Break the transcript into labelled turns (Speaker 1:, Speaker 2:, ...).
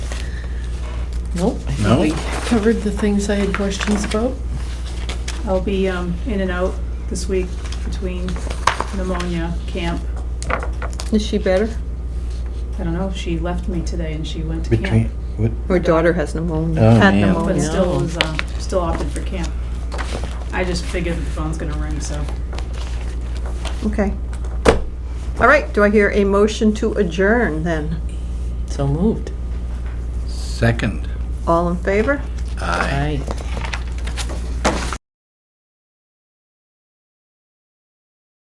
Speaker 1: Nope. I think
Speaker 2: No?
Speaker 1: We covered the things I had questions about.
Speaker 3: I'll be um, in and out this week between pneumonia, camp.
Speaker 4: Is she better?
Speaker 3: I don't know, she left me today and she went to
Speaker 2: Between,
Speaker 3: camp.
Speaker 2: what,
Speaker 4: Her daughter has pneumonia.
Speaker 2: Oh,
Speaker 4: had
Speaker 2: man.
Speaker 4: pneumonia.
Speaker 3: But still
Speaker 1: no.
Speaker 3: was, uh, still opted for camp. I just figured the phone's gonna ring, so.
Speaker 4: Okay. All right, do I hear a motion to adjourn then?
Speaker 1: So moved.
Speaker 2: second.
Speaker 4: All in favor?
Speaker 2: Aye.
Speaker 1: Aye.